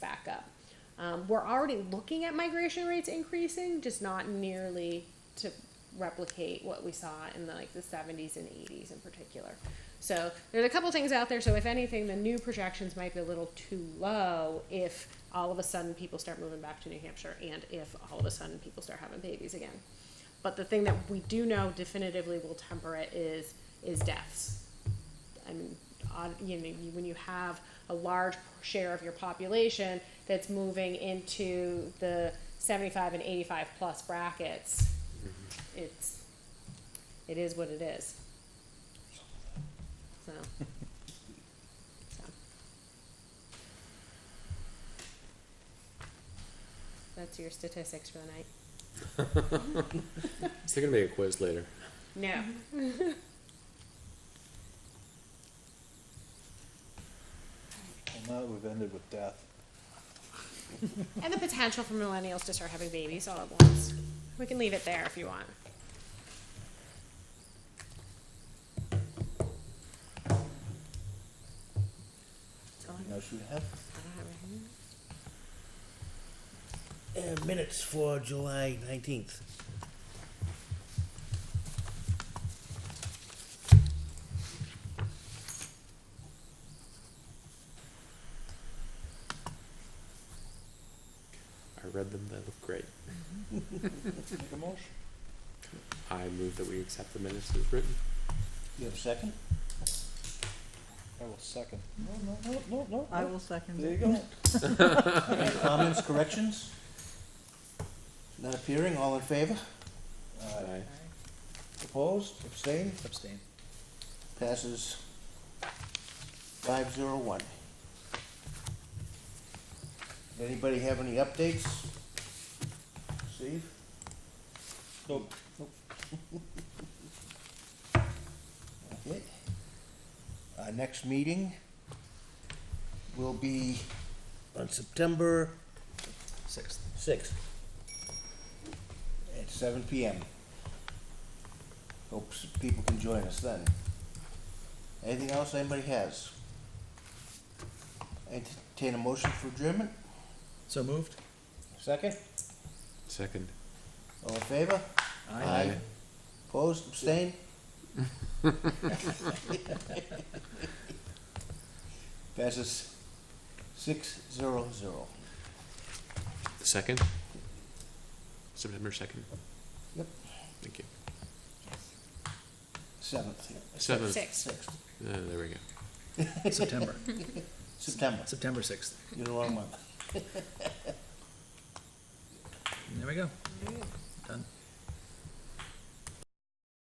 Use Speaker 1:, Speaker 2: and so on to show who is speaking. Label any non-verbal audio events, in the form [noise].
Speaker 1: Um, we're already looking at migration rates increasing, just not nearly to replicate what we saw in the, like the 70s and 80s in particular. So there's a couple things out there. So if anything, the new projections might be a little too low if all of a sudden people start moving back to New Hampshire and if all of a sudden people start having babies again. But the thing that we do know definitively will temper it is is deaths. I mean, odd- you know, you- when you have a large share of your population that's moving into the 75 and 85 plus brackets,
Speaker 2: Mm-hmm.
Speaker 1: it's it is what it is. So. so. That's your statistics for the night.
Speaker 2: Is there gonna be a quiz later?
Speaker 1: No.
Speaker 3: Well, now that we've ended with death,
Speaker 1: And the potential for millennials to start having babies all at once. We can leave it there if you want. That's all I
Speaker 3: you know, should we have?
Speaker 1: I don't have anything.
Speaker 4: And minutes for July nineteenth.
Speaker 2: I read them, they look great.
Speaker 3: Make a motion.
Speaker 2: I move that we accept the minutes as written.
Speaker 3: You have a second? I will second. No, no, no, no, no.
Speaker 5: I
Speaker 3: no.
Speaker 5: will second
Speaker 3: There you
Speaker 5: it.
Speaker 3: go. Any Comments, corrections? Not appearing, all in favor? Aye.
Speaker 2: Aye.
Speaker 3: Opposed, abstained,
Speaker 4: Abstain.
Speaker 3: passes five zero one. Anybody have any updates? Steve? Nope. Okay. Our next meeting will be
Speaker 4: On September. Sixth. Sixth.
Speaker 3: at seven PM. Hope s- people can join us then. Anything else anybody has? Entertain a motion for adjournment?
Speaker 4: So moved?
Speaker 3: Second?
Speaker 2: Second.
Speaker 3: All in favor?
Speaker 2: Aye.
Speaker 3: Opposed,
Speaker 2: [laughs]
Speaker 3: abstained? Passes six zero zero.
Speaker 2: Second? September second?
Speaker 3: Yep.
Speaker 2: Thank you.
Speaker 3: Seventh,
Speaker 2: Seventh.
Speaker 1: Six.
Speaker 3: sixth,
Speaker 2: Uh, there we go.
Speaker 4: September,
Speaker 3: September,
Speaker 4: September sixth.
Speaker 3: you're the wrong month.
Speaker 4: There we go. Done.